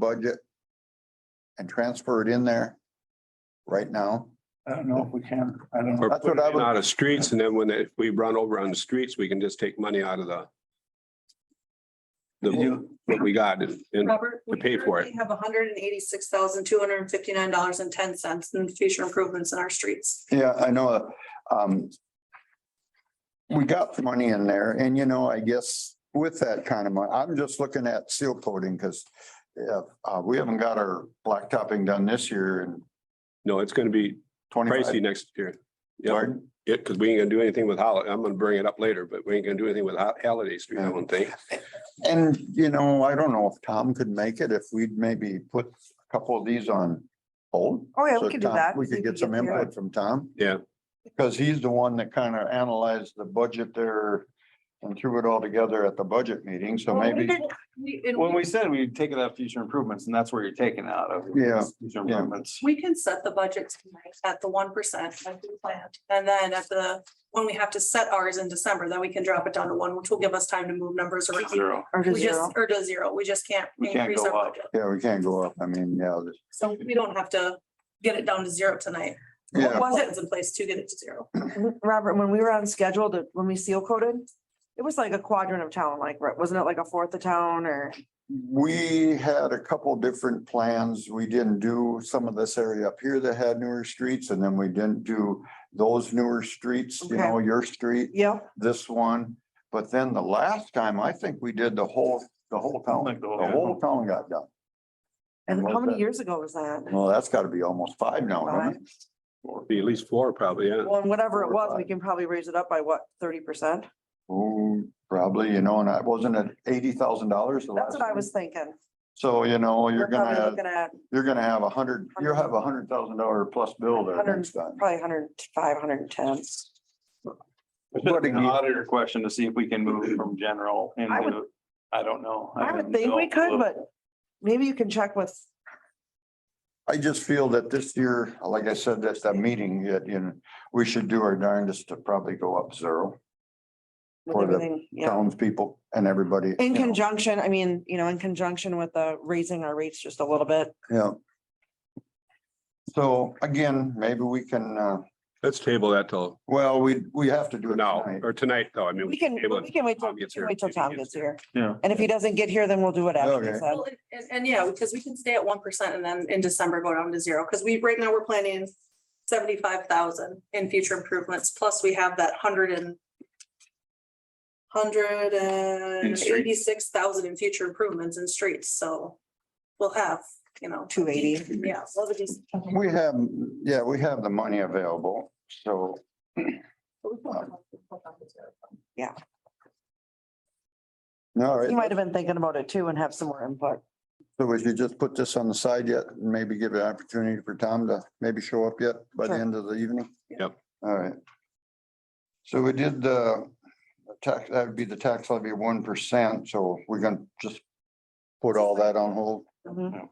budget and transfer it in there right now? I don't know if we can, I don't Or know. That's what put I it would- out of streets and then when it- we run over on the streets, we can just take money out of the. Did The, you- what we got and Robert. we to pay for it. currently Have hundred and eighty-six thousand, two hundred and fifty-nine dollars and ten cents in future improvements in our streets. Yeah, I know, um. We got the money in there and you know, I guess with that kind of money, I'm just looking at seal coating because. Yeah, uh, we haven't got our blacktopping done this year in no, it's gonna be pricey twenty-five. next year. Yeah, Pardon? yeah, because we ain't gonna do anything with holiday. I'm gonna bring it up later, but we ain't gonna do anything with Hol- Halliday Street, I don't think. And, you know, I don't know if Tom could make it, if we'd maybe put a couple of these on hold. Oh, yeah, So we could do Tom- that. We could get some there. input from Tom. Yeah. Because he's the one that kind of analyzed the budget there and threw it all together at the budget meeting, so Well, we maybe. did- we- and When we- we said we'd take it out of future improvements, and that's where you're taking it out of. Yeah, Future yeah. improvements. We can set the budget tonight at the one percent as we planned. And then at the, when we have to set ours in December, then we can drop it down to one, which will give us time to move numbers around. Zero. Or to We zero. just, or to zero. We just can't We can't increase go our up. budget. Yeah, we can't go up. I mean, yeah, this- So we don't have to get it down to zero tonight. yeah, Was it, Plans in place to get it to zero. Robert, when we were on schedule to, when we seal coated, it was like a quadrant of town, like, right, wasn't it like a fourth of town or? we had a couple different plans. We didn't do some of this area up here that had newer streets and then we didn't do those newer streets, you Okay. know, your street, Yep, this one. But then the last time, I think we did the whole, the whole town, Like the the whole- whole town got done. and Love how that. many years ago was that? Well, that's gotta be almost five now, huh? Or be at least four probably, yeah. Well, and whatever it Uh, Four or was, we five. can probably raise it up by what, thirty percent? Oh, probably, you know, and I wasn't at eighty thousand dollars the last. That's what I time? was thinking. So, you know, you're We're probably gonna, Looking at you're gonna have a hundred, you'll have a hundred thousand dollar plus bill there Hundred- next time. probably hundred five, hundred and ten. It's just An But again- auditor question to see if we can move from general I would- into, I don't know. I would haven't think we dealt could, with- but maybe you can check with, I just feel that this year, like I said, that's that meeting, that, you know, we should do our darndest to probably go up zero. with For the everything, yeah. Townspeople and everybody. In you know. conjunction, I mean, you know, in conjunction with the raising our rates just a little bit. Yeah. So again, maybe we can, uh, Let's table that till well, we, we have to do it now tonight. or tonight though. I mean. We can, table it. we can wait till, Tom we gets can here, wait till if he Tom gets gets here. here. Yeah. And if he doesn't get here, then we'll do it after. he Okay. said. Well, and- And, and yeah, because we can stay at one percent and then in December go down to zero, because we, right now, we're planning seventy-five thousand in future improvements, plus we have that hundred and hundred and eighty-six thousand in future improvements in streets, so we'll have, you know. 280. Yeah. well, the decent- We have, yeah, we have the money available, so. Yeah. All right. He might have been thinking about it too and have some more input. So would you just put this on the side yet and maybe give an opportunity for Tom to maybe show up yet by the Sure. end of the evening? Yep. All right. So we did the tax, that would be the tax levy of one percent, so we're gonna just put all that on hold. Mhm.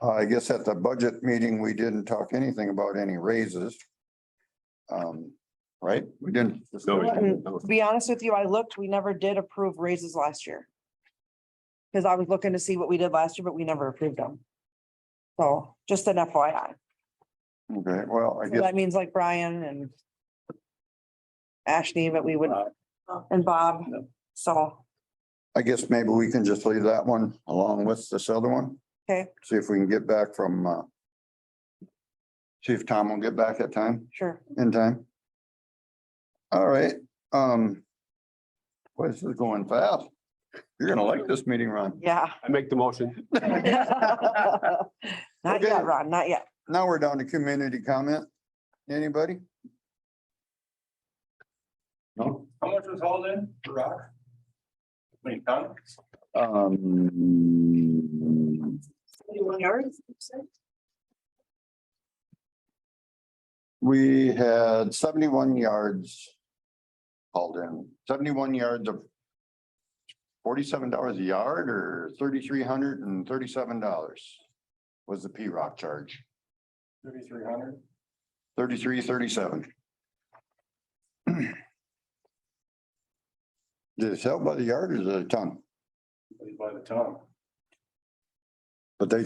Uh, I guess at the budget meeting, we didn't talk anything about any raises. Um, right? We didn't. No, we Mm. didn't. No. To be honest with you, I looked, we never did approve raises last year. Because I was looking to see what we did last year, but we never approved them. So just an FYI. Okay, well, I So guess, That means like Brian and Ashley, but we would, and Bob, so. I guess maybe we can just leave that one along with this other one. Okay. See if we can get back from, uh, see if Tom will get back at time, Sure. in time. All right, um, boy, this is going fast. You're gonna like this meeting, Ron. Yeah. I make the motion. Not Okay. yet, Ron, not yet. Now we're down to community comment. Anybody? No? How much was hauled in for rock? I mean, ton? Um, Seventy-one yards, you said? we had seventy-one yards hauled in, seventy-one yards of forty-seven dollars a yard or thirty-three hundred and thirty-seven dollars was the P-rock charge, Thirty-three hundred. thirty-three, thirty-seven. Did it sell by the yard or the ton? By the ton. But they